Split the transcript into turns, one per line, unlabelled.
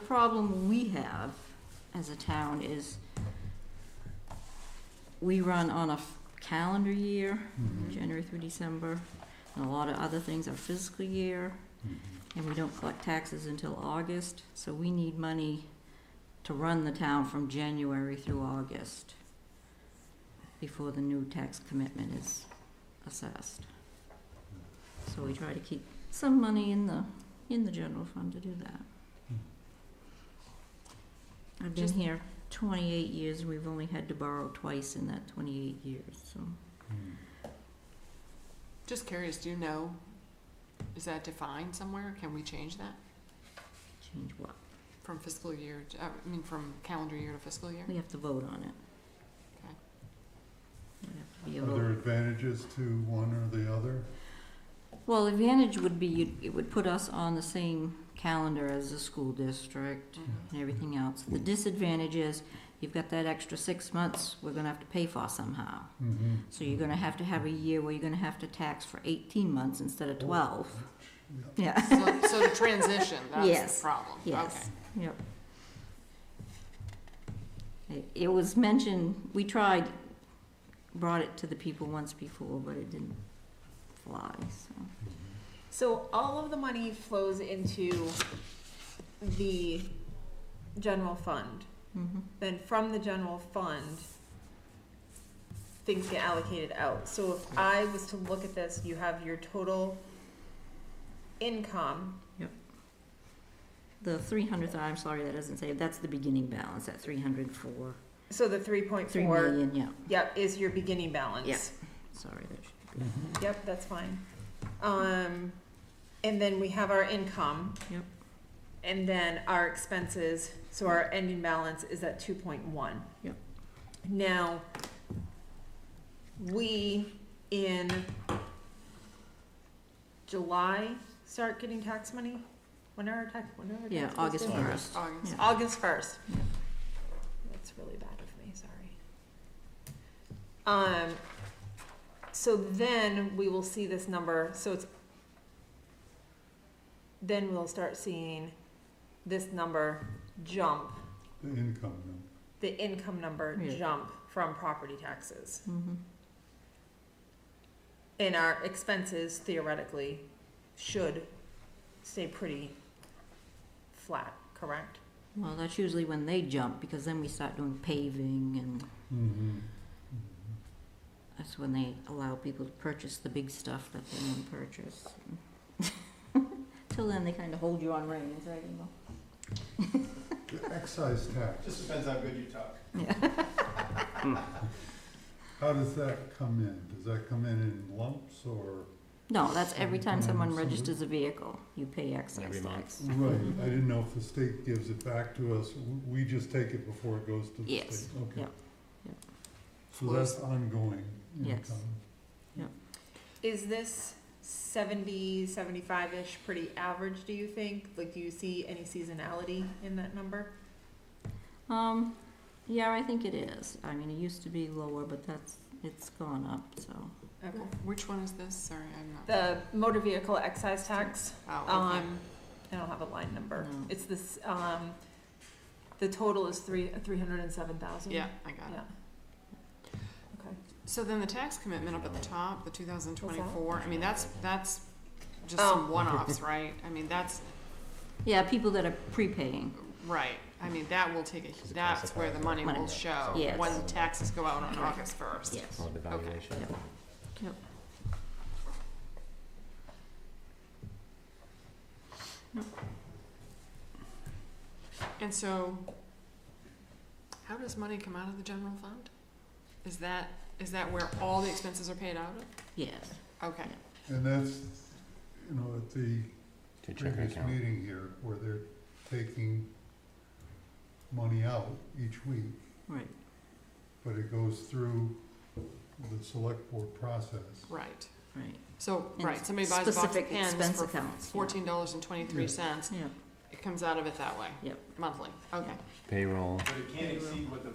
problem we have as a town is we run on a f- calendar year, January through December, and a lot of other things are fiscal year, and we don't collect taxes until August, so we need money to run the town from January through August before the new tax commitment is assessed. So we try to keep some money in the, in the general fund to do that. I've been
Hmm. Just-
here twenty-eight years, and we've only had to borrow twice in that twenty-eight years, so.
Mm.
Just curious, do you know, is that defined somewhere? Can we change that
Change what?
from fiscal year, to- uh, I mean, from calendar year to fiscal year?
We have to vote on it.
Okay.
Would have to be a
Are there
vote.
advantages to one or the other?
Well, the advantage would be, you'd- it would put us on the same calendar as the school district
Mhm.
Mm-hmm.
and everything else. The disadvantage is, you've got that extra six months we're gonna have to pay for somehow.
Mm-hmm.
So you're gonna have to have a year where you're gonna have to tax for eighteen months instead of twelve. Yeah,
So, so the transition, that's
Yes,
the problem.
yes, yep. It- It was mentioned, we tried, brought it to the people once before, but it didn't fly, so.
So all of the money flows into the general fund.
mhm.
Then from the general fund, things get allocated out. So if I was to look at this, you have your total income.
The three hundred, I'm sorry, that doesn't say, that's the beginning balance, at three hundred four,
So the three point
three
four,
million, yeah,
yep, is your beginning balance.
Yeah. sorry, that should be.
Mm-hmm.
Yep, that's fine. Um, and then we have our income.
Yep.
And then our expenses, so our ending balance is at two point one.
Yep.
Now, we in July start getting tax money? When are our tax, when are our tax?
Yeah,
bills
August
due?
first.
August.
Yeah.
August first.
Yeah.
That's really bad of me, sorry. Um, so then we will see this number, so it's, then we'll start seeing this number jump,
The income number.
the income number
Yeah.
jump from property taxes.
Mhm.
And our expenses theoretically should stay pretty flat, correct?
Well, that's usually when they jump, because then we start doing paving and
Mm-hmm.
that's when they allow people to purchase the big stuff that they want to purchase. Till then, they kind of hold you on reins, right, Emil?
The excise tax,
Just depends how good you talk.
Yeah,
how does that come in? Does that come in in lumps or?
no, that's every time someone
Mhm.
registers a vehicle, you pay excise tax.
Right, I didn't know if the state gives it back to us, W- we just take it before it goes to the state?
Yes,
Okay.
yep, yep.
So that's ongoing
Yes.
income?
Is this 70, 75-ish pretty average, do you think? Like, do you see any seasonality in that number?
Um, yeah, I think it is. I mean, it used to be lower, but that's, it's gone up, so.
Okay.
Which one is this? Sorry, I'm not.
The motor vehicle excise tax,
Oh, okay.
um, I don't have a line number.
No.
It's this, um, the total is three, 307,000?
Yeah, I got it.
Yeah. Okay.
So then the tax commitment up at the top, the two thousand twenty-four, I mean, that's, that's just
Oh.
some one-offs, right? I mean, that's,
Yeah, people that are prepaying,
right, I mean, that will take a, that's where the money
Money.
will show.
Yes.
When taxes go out on August first.
yes.
Oh, the valuation.
Yep. Yep.
And so, how does money come out of the general fund? Is that, is that where all the expenses are paid out
Yes,
of? Okay,
And that's, you know, at the
To check
previous
account.
meeting here, where they're taking money out each week,
right,
but it goes through the select board process.
right.
right,
So,
And
right, somebody buys a box of
specific
pens
expense
for
accounts, yeah.
fourteen dollars and twenty-three cents,
yeah.
it comes out of it that way?
Yep.
Monthly, okay.
Payroll.
But it can't exceed what the